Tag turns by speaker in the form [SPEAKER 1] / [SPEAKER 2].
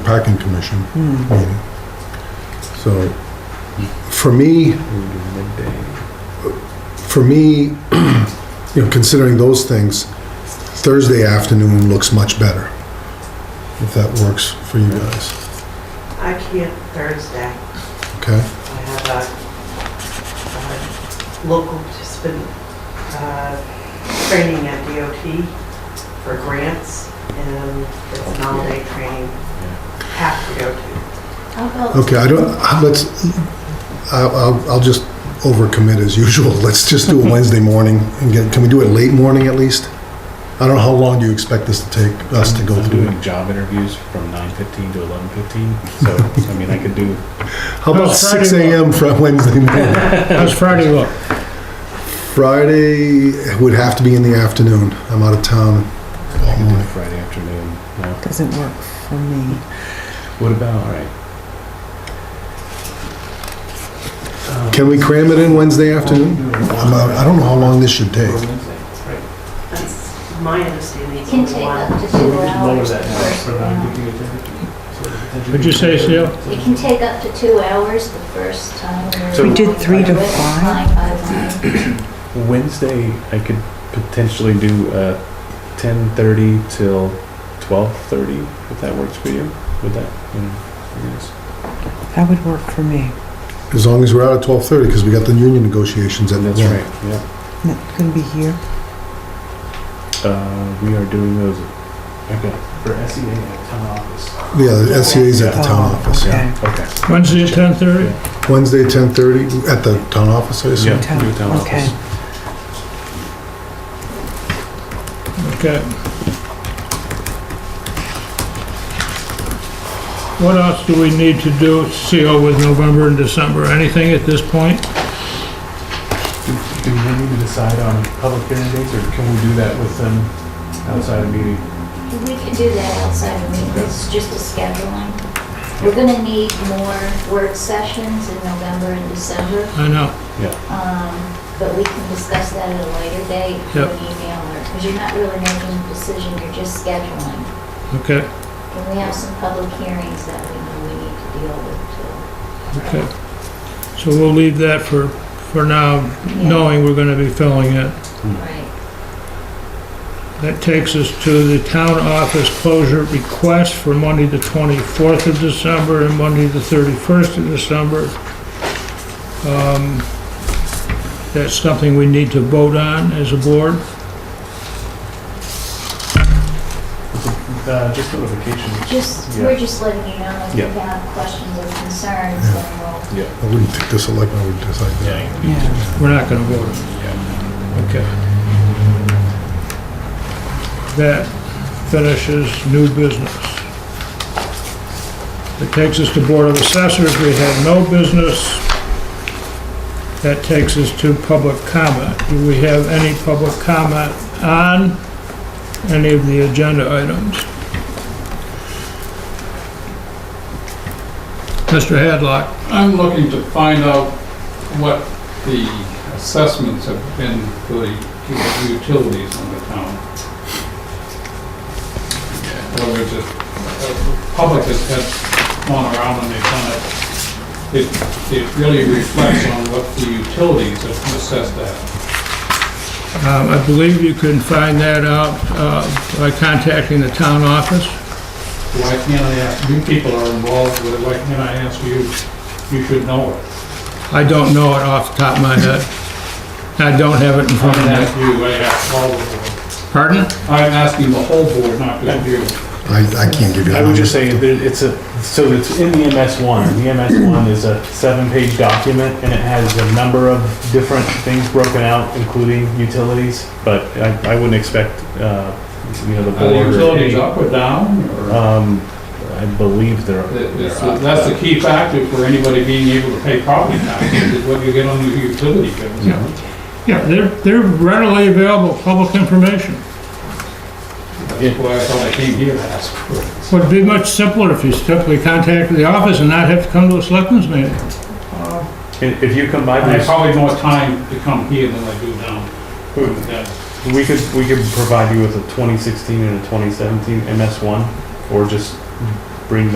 [SPEAKER 1] parking commission meeting. So, for me, for me, you know, considering those things, Thursday afternoon looks much better, if that works for you guys,
[SPEAKER 2] I can't Thursday.
[SPEAKER 1] okay?
[SPEAKER 2] I have a, a Uh, local participant, uh, training at DOT for grants, and it's an all-day training. Have to go to.
[SPEAKER 3] How about,
[SPEAKER 1] Okay, I don't, let's, I'll, I'll- I'll just overcommit as usual. Let's just do a Wednesday morning and get, can we do it late morning at least? I don't know, how long do you expect this to take, us to go
[SPEAKER 4] I'm
[SPEAKER 1] through?
[SPEAKER 4] doing job interviews from 9:15 to 11:15, so, I mean, I could do,
[SPEAKER 1] How about
[SPEAKER 5] How's Friday
[SPEAKER 1] six AM from Wednesday morning?
[SPEAKER 5] How's Friday look?
[SPEAKER 1] Friday would have to be in the afternoon. I'm out of town
[SPEAKER 4] I
[SPEAKER 1] all
[SPEAKER 4] could do
[SPEAKER 1] morning.
[SPEAKER 4] Friday afternoon. No.
[SPEAKER 6] Doesn't work for me.
[SPEAKER 4] What about, all right, Um,
[SPEAKER 1] Can we cram it in Wednesday afternoon? I'm out- I don't know how long this should take.
[SPEAKER 2] That's my understanding.
[SPEAKER 3] it
[SPEAKER 2] It's
[SPEAKER 3] can
[SPEAKER 2] a
[SPEAKER 3] take
[SPEAKER 2] while.
[SPEAKER 3] up to two hours. for- yeah.
[SPEAKER 5] What'd you say, Seal?
[SPEAKER 3] It can take up to two hours the first time.
[SPEAKER 4] So- We
[SPEAKER 6] did three to
[SPEAKER 3] Line
[SPEAKER 6] five.
[SPEAKER 3] by line.
[SPEAKER 4] Wednesday, I could potentially do uh, 10:30 till 12:30, if that works for you, would that? you know, I guess.
[SPEAKER 6] That would work for me.
[SPEAKER 1] As long as we're out at twelve-thirty, because we got the union negotiations at
[SPEAKER 4] That's
[SPEAKER 1] one.
[SPEAKER 4] right, yeah.
[SPEAKER 6] Not gonna be here.
[SPEAKER 4] Uh, We are doing those, okay,
[SPEAKER 7] for SEA at town office.
[SPEAKER 1] Yeah, the SCA's at the town
[SPEAKER 6] Oh,
[SPEAKER 1] office.
[SPEAKER 6] Okay.
[SPEAKER 4] okay.
[SPEAKER 5] Wednesday at ten thirty?
[SPEAKER 1] Wednesday, 10:30, at the town office, I assume?
[SPEAKER 4] Yeah,
[SPEAKER 6] Town-
[SPEAKER 4] do town
[SPEAKER 6] okay.
[SPEAKER 4] office.
[SPEAKER 5] Okay. What else do we need to do, Seal, with November and December? Anything at this point?
[SPEAKER 7] Do we need to decide on public hearing dates, or can we do that with them outside of meeting?
[SPEAKER 3] We can do that outside of meetings, it's just a scheduling. We're gonna need more work sessions in November and December,
[SPEAKER 5] I know,
[SPEAKER 3] um, but we can discuss that at a later date, in
[SPEAKER 5] Yep.
[SPEAKER 3] an email, or, because you're not really making a decision, you're just scheduling.
[SPEAKER 5] okay,
[SPEAKER 3] And we have some public hearings that we know we need to deal with
[SPEAKER 5] okay. So we'll leave that for, for now,
[SPEAKER 3] too. Yeah,
[SPEAKER 5] knowing we're gonna be filling it.
[SPEAKER 3] Right,
[SPEAKER 5] That takes us to the town office closure request for Monday, the 24th of December and Monday, the 31st of December. Um, That's something we need to vote on as a board.
[SPEAKER 7] Uh, just notification.
[SPEAKER 3] just,
[SPEAKER 7] Yeah.
[SPEAKER 3] we're just letting you know if you
[SPEAKER 4] Yeah.
[SPEAKER 3] have questions or concerns, then we'll
[SPEAKER 1] I wouldn't think this selectmen would decide that.
[SPEAKER 6] Yeah.
[SPEAKER 5] We're not going to vote on it. Okay. That finishes new business. It takes us to Board of Assessors. We have no business. That takes us to public comment. Do we have any public comment on any of the agenda items? Mr. Hadlock?
[SPEAKER 8] I'm looking to find out what the assessments have been for the u- utilities in the town. In other words, if- if the public has has gone around and they've done it, it, it really reflects on what the utilities have assessed at.
[SPEAKER 5] Um, I believe you can find that out uh, by contacting the town office.
[SPEAKER 8] Why can't I ask, you people are involved with it, why can't I ask you? You should know it.
[SPEAKER 5] I don't know it off the top of my head. I don't have it in
[SPEAKER 8] I'm
[SPEAKER 5] front of
[SPEAKER 8] gonna ask
[SPEAKER 5] me.
[SPEAKER 8] you, I ask all of them.
[SPEAKER 5] Pardon?
[SPEAKER 8] I'm asking the whole board, not just you.
[SPEAKER 1] I, I can't give you that.
[SPEAKER 4] I would just say that it's a, so it's in the MS one. The MS one is a seven-page document and it has a number of different things broken out, including utilities. But I, I wouldn't expect, uh, you know, the
[SPEAKER 8] Are the utilities
[SPEAKER 4] board.
[SPEAKER 8] up or down, or?
[SPEAKER 4] Um, I believe they're.
[SPEAKER 8] That's that's the key factor for anybody being able to pay property taxes, is what you get on the utility bills.
[SPEAKER 5] Yeah. Yeah, they're, they're readily available public information.
[SPEAKER 8] That's why I thought I came here to ask for it.
[SPEAKER 5] Would be much simpler if you simply contacted the office and not have to come to a selectmen's meeting.
[SPEAKER 4] If if you combine
[SPEAKER 8] I have
[SPEAKER 4] this,
[SPEAKER 8] probably more time to come here than I do down. Yeah.
[SPEAKER 4] we could, we could provide you with a twenty sixteen and a twenty seventeen MS one, or just bring the